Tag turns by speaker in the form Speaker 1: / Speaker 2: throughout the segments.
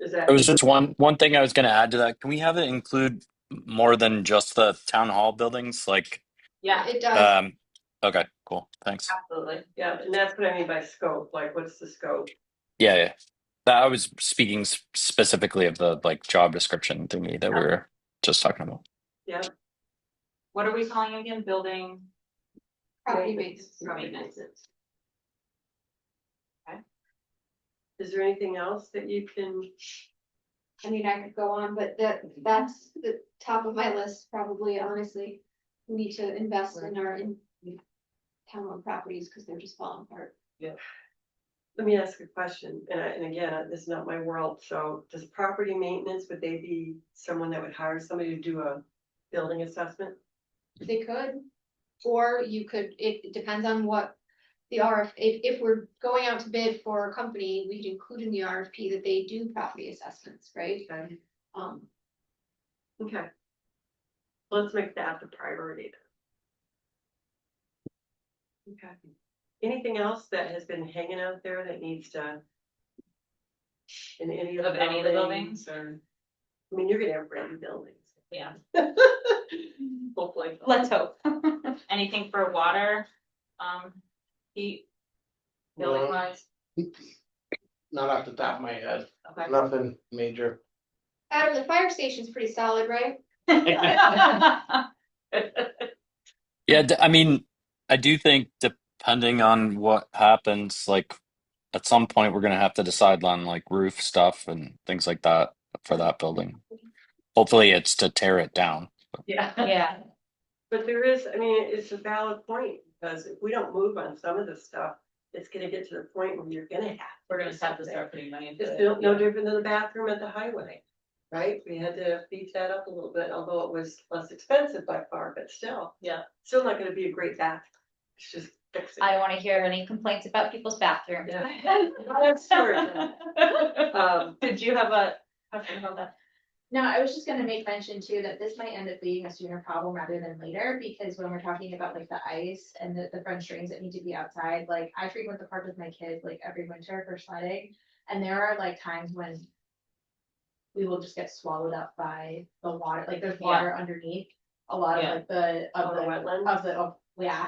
Speaker 1: Is that?
Speaker 2: It was just one one thing I was going to add to that. Can we have it include more than just the town hall buildings? Like,
Speaker 1: Yeah,
Speaker 3: It does,
Speaker 2: um, okay, cool, thanks.
Speaker 1: absolutely. Yeah, and that's what I mean by scope, like what's the scope?
Speaker 2: Yeah, yeah. That I was speaking s- specifically of the like job description thingy that we were just talking about.
Speaker 1: Yeah. What are we calling again? Building?
Speaker 3: property maintenance.
Speaker 1: Maintenance. Okay. Is there anything else that you can?
Speaker 3: I mean, I could go on, but that, that's the top of my list, probably, honestly. We need to invest in our in. Town-owned properties, because they're just falling apart.
Speaker 1: Let me ask a question, and I, and again, uh, this is not my world, so does property maintenance, would they be someone that would hire somebody to do a building assessment?
Speaker 3: They could, or you could, it it depends on what. The RF, if, if we're going out to bid for a company, we'd include in the RFP that they do property assessments, right?
Speaker 1: Okay.
Speaker 3: Um,
Speaker 1: Okay. Let's make that the priority. then. Okay. Anything else that has been hanging out there that needs to? In any of the
Speaker 4: Of any of the
Speaker 1: buildings?
Speaker 4: buildings or,
Speaker 1: I mean, you're gonna have brand new buildings.
Speaker 4: yeah,
Speaker 1: Hopefully.
Speaker 4: let's hope. Anything for water, um, heat, building
Speaker 5: No,
Speaker 4: wise,
Speaker 5: Not off the top of my head,
Speaker 4: okay.
Speaker 5: nothing major.
Speaker 3: Adam, the fire station's pretty solid, right?
Speaker 2: Yeah, d- I mean, I do think depending on what happens, like at some point we're going to have to decide on like roof stuff and things like that for that building. Hopefully it's to tear it down.
Speaker 1: Yeah.
Speaker 4: Yeah,
Speaker 1: But there is, I mean, it's a valid point, because if we don't move on some of this stuff, it's gonna get to the point where you're gonna have.
Speaker 4: we're gonna just have to start putting money into
Speaker 1: It's
Speaker 4: it.
Speaker 1: no, no different than the bathroom at the highway, right? We had to beef that up a little bit, although it was less expensive by far, but still.
Speaker 4: Yeah.
Speaker 1: Still not gonna be a great bath. It's just fix it.
Speaker 6: I don't wanna hear any complaints about people's bathrooms.
Speaker 1: Yeah. That's true. Um,
Speaker 4: Did you have a question about that?
Speaker 7: No, I was just gonna make mention too, that this might end up being a sooner problem rather than later, because when we're talking about like the ice and the, the French drains that need to be outside, like I frequent the park with my kids like every winter for sledding. And there are like times when we will just get swallowed up by the water, like there's
Speaker 4: Yeah.
Speaker 7: water underneath. A lot of
Speaker 4: Yeah.
Speaker 7: like the,
Speaker 1: on
Speaker 7: of
Speaker 1: the
Speaker 7: the
Speaker 1: wetland,
Speaker 7: of the, of, yeah,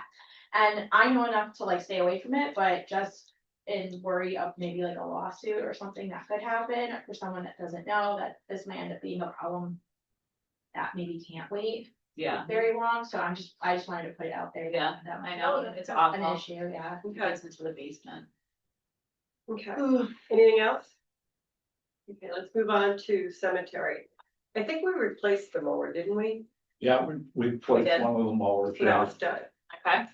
Speaker 7: and I know enough to like stay away from it, but just in worry of maybe like a lawsuit or something that could happen for someone that doesn't know that this might end up being a problem that maybe can't wait
Speaker 4: Yeah,
Speaker 7: very long, so I'm just, I just wanted to put it out there. that-
Speaker 4: Yeah,
Speaker 7: that
Speaker 4: I
Speaker 7: might
Speaker 4: know,
Speaker 7: be a-
Speaker 4: it's
Speaker 7: An
Speaker 4: awful.
Speaker 7: issue, yeah.
Speaker 4: who goes into the basement?
Speaker 1: okay. Anything else? Okay, let's move on to cemetery. I think we replaced the mower, didn't we?
Speaker 8: Yeah, we, we placed
Speaker 4: did.
Speaker 8: one of them over,
Speaker 1: When I
Speaker 8: yeah.
Speaker 1: was done.
Speaker 4: Okay,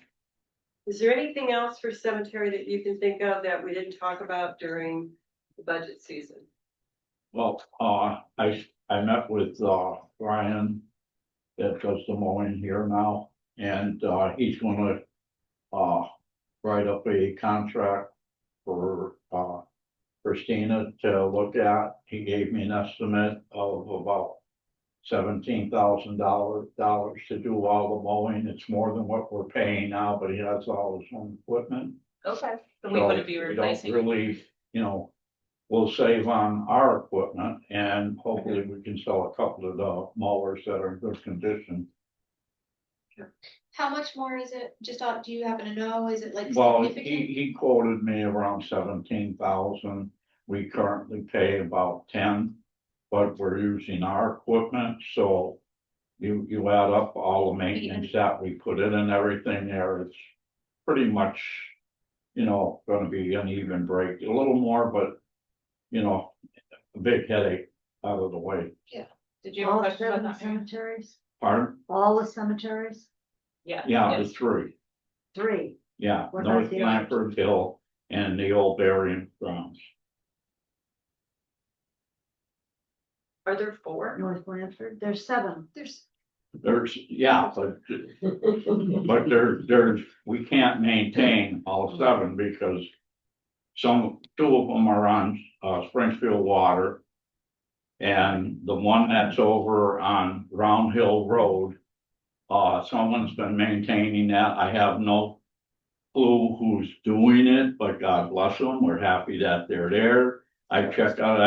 Speaker 1: Is there anything else for cemetery that you can think of that we didn't talk about during the budget season?
Speaker 8: Well, uh, I, I met with, uh, Brian that does the mowing here now, and, uh, he's gonna, uh, write up a contract for, uh, Christina to look at. He gave me an estimate of about seventeen thousand dollars, dollars to do all the mowing. It's more than what we're paying now, but he has all his own equipment.
Speaker 4: okay, so we
Speaker 8: So
Speaker 4: wouldn't be
Speaker 8: we don't
Speaker 4: replacing,
Speaker 8: Really, you know, we'll save on our equipment and hopefully we can sell a couple of the mowers that are in good condition.
Speaker 3: How much more is it? Just, uh, do you happen to know? Is it like
Speaker 8: Well, he,
Speaker 3: significant?
Speaker 8: he quoted me around seventeen thousand. We currently pay about ten, but we're using our equipment, so you, you add up all the maintenance that we put in and everything there, it's pretty much, you know, gonna be an even break, a little more, but, you know, a big headache out of the way.
Speaker 4: did you
Speaker 6: Oh,
Speaker 4: have a question about that? Mary?
Speaker 9: cemeteries,
Speaker 8: Pardon?
Speaker 9: all the cemeteries,
Speaker 4: Yeah.
Speaker 8: Yeah, the
Speaker 4: yes.
Speaker 8: three,
Speaker 9: three.
Speaker 8: yeah,
Speaker 9: What about
Speaker 8: North
Speaker 9: the others?
Speaker 8: Blanford Hill and the old burying grounds.
Speaker 1: Are there four?
Speaker 9: North Blanford, there's seven.
Speaker 3: There's,
Speaker 8: There's, yeah, but, but there, there's, we can't maintain all seven because some, two of them are on, uh, Springfield Water. And the one that's over on Round Hill Road, uh, someone's been maintaining that. I have no clue who's doing it, but God bless them. We're happy that they're there. I checked out